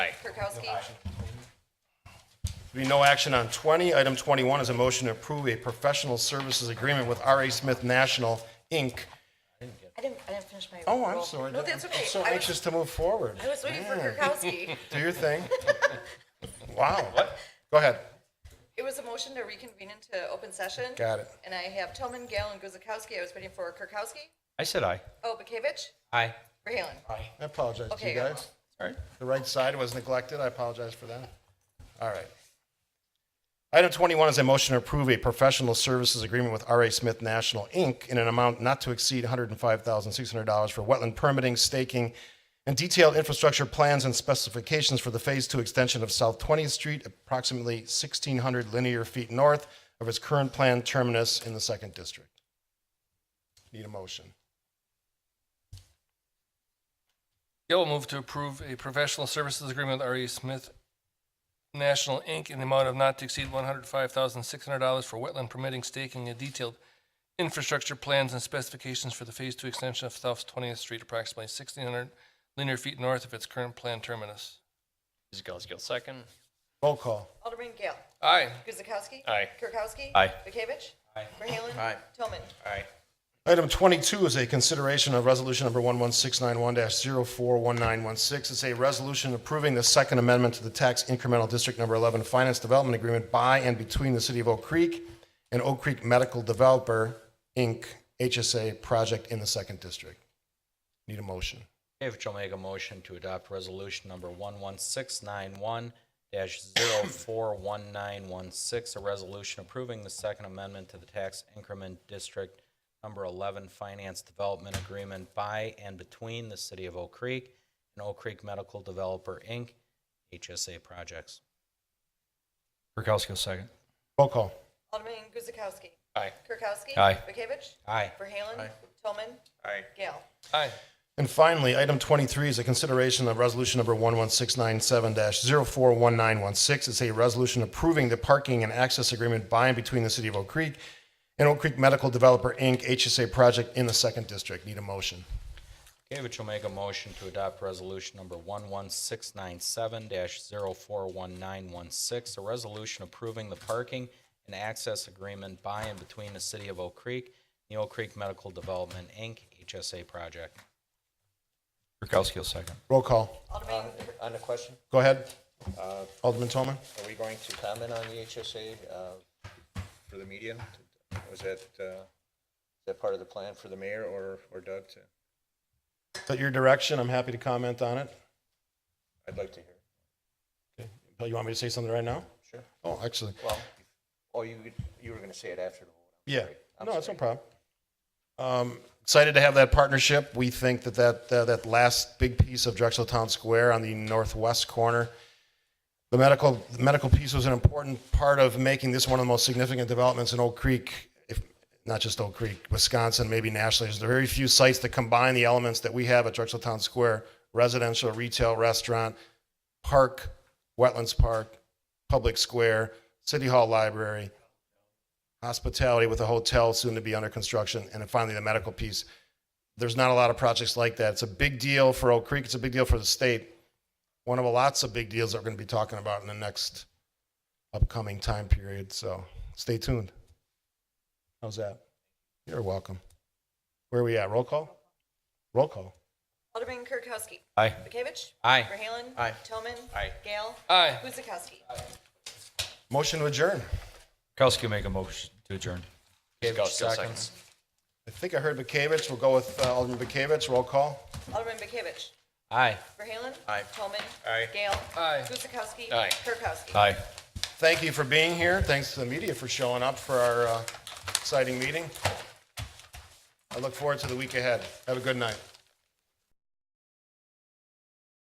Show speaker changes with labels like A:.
A: Kirkowski.
B: There being no action on 20, item 21 is a motion to approve a professional services agreement with R.A. Smith National, Inc.
C: I didn't, I didn't finish my.
B: Oh, I'm
C: roll.
B: sorry.
A: No, that's okay.
B: I'm so
A: I was-
B: anxious to move forward.
A: I was waiting for
B: Man,
A: Kirkowski.
B: Do your thing. Wow. Go ahead.
A: It was a motion to reconvene into open session.
B: Got it.
A: And I have Tillman, Gale, and Guzekowski. I was waiting for Kirkowski.
D: I said aye.
A: Oh, Bakovic,
D: Aye.
A: Verhaelen.
B: I apologize to
A: Okay,
B: you
A: go.
B: guys.
D: All right.
B: The right side was neglected. I apologize for that. All right. Item 21 is a motion to approve a professional services agreement with R.A. Smith National, Inc. in an amount not to exceed $105,600 for wetland permitting, staking, and detailed infrastructure plans and specifications for the Phase 2 extension of South 20th Street, approximately 1,600 linear feet north of its current planned terminus in the Second District. Need a motion.
E: Gail will move to approve a professional services agreement with RE Smith National, Inc. in the amount of not to exceed one hundred five thousand six hundred dollars for wetland permitting, staking, and detailed infrastructure plans and specifications for the Phase Two extension of South Twentieth Street, approximately sixteen hundred linear feet north of its current planned terminus.
D: Guzekowski, second.
B: Roll call.
A: Alderman Gale.
E: Aye.
A: Guzekowski.
D: Aye.
A: Kirkowski.
D: Aye.
A: Bakovic.
D: Aye.
A: Verhaelen.
D: Aye.
A: Tillman.
D: Aye.
B: Item 22 is a consideration of resolution number 11691-041916. It's a resolution approving the Second Amendment to the Tax Incremental District Number 11 Finance Development Agreement by and between the City of Oak Creek and Oak Creek Medical Developer, Inc., HSA project in the Second District. Need a motion.
D: David will make a motion to adopt resolution number 11691-041916, a resolution approving the Second Amendment to the Tax Increment District Number 11 Finance Development Agreement by and between the City of Oak Creek and Oak Creek Medical Developer, Inc., HSA projects.
E: Kirkowski, second.
B: Roll call.
A: Alderman Guzekowski.
D: Aye.
A: Kirkowski.
E: Aye.
A: Bakovic.
D: Aye.
A: Verhaelen. Tillman.
D: Aye.
A: Gale.
E: Aye.
B: And finally, item 23 is a consideration of resolution number 11697-041916. It's a resolution approving the parking and access agreement by and between the City of Oak Creek and Oak Creek Medical Developer, Inc., HSA project in the Second District. Need a motion.
D: Gavich will make a motion to adopt resolution number 11697-041916, a resolution approving the parking and access agreement by and between the City of Oak Creek and the Oak Creek Medical Development, Inc., HSA project.
E: Kirkowski, second.
B: Roll call.
A: Alderman,
F: On the question,
B: Go ahead. Uh, Alderman Toman.
F: are we going to comment on the HSA uh, for the media? Was that, uh, is that part of the plan for the mayor or or Doug? to-
B: Is that your direction? I'm happy to comment on it.
F: I'd like to hear.
B: Bill, you want me to say something right now?
F: Sure.
B: Oh, actually,
F: Well, oh, you, you were going to say it after the vote.
B: yeah.
F: I'm
B: No, it's no
F: sorry.
B: problem. Um, excited to have that partnership. We think that that, uh, that last big piece of Drexel Town Square on the northwest corner, the medical, the medical piece was an important part of making this one of the most significant developments in Oak Creek, if, not just Oak Creek, Wisconsin, maybe nationally. There's very few sites that combine the elements that we have at Drexel Town Square, residential, retail, restaurant, park, wetlands park, public square, city hall library, hospitality with a hotel soon to be under construction, and then finally the medical piece. There's not a lot of projects like that. It's a big deal for Oak Creek. It's a big deal for the state. One of the lots of big deals that we're going to be talking about in the next upcoming time period. So stay tuned. How's that? You're welcome. Where are we at? Roll call? Roll call.
A: Alderman Kirkowski.
D: Aye.
A: Bakovic.
D: Aye.
A: Verhaelen.
F: Aye.
A: Tillman.
D: Aye.
A: Gale.
E: Aye.
A: Guzekowski.
B: Motion to adjourn.
D: Kirkowski make a motion to adjourn. Gavich, second.
B: I think I heard Bakavich. We'll go with uh, Alderman Bakavich. Roll call.
A: Alderman Bakovic.
D: Aye.
A: Verhaelen.
F: Aye.
A: Tillman.
F: Aye.
A: Gale.
E: Aye.
A: Guzekowski.
D: Aye.
A: Kirkowski.
D: Aye.
B: Thank you for being here. Thanks to the media for showing up for our uh, exciting meeting. I look forward to the week ahead. Have a good night.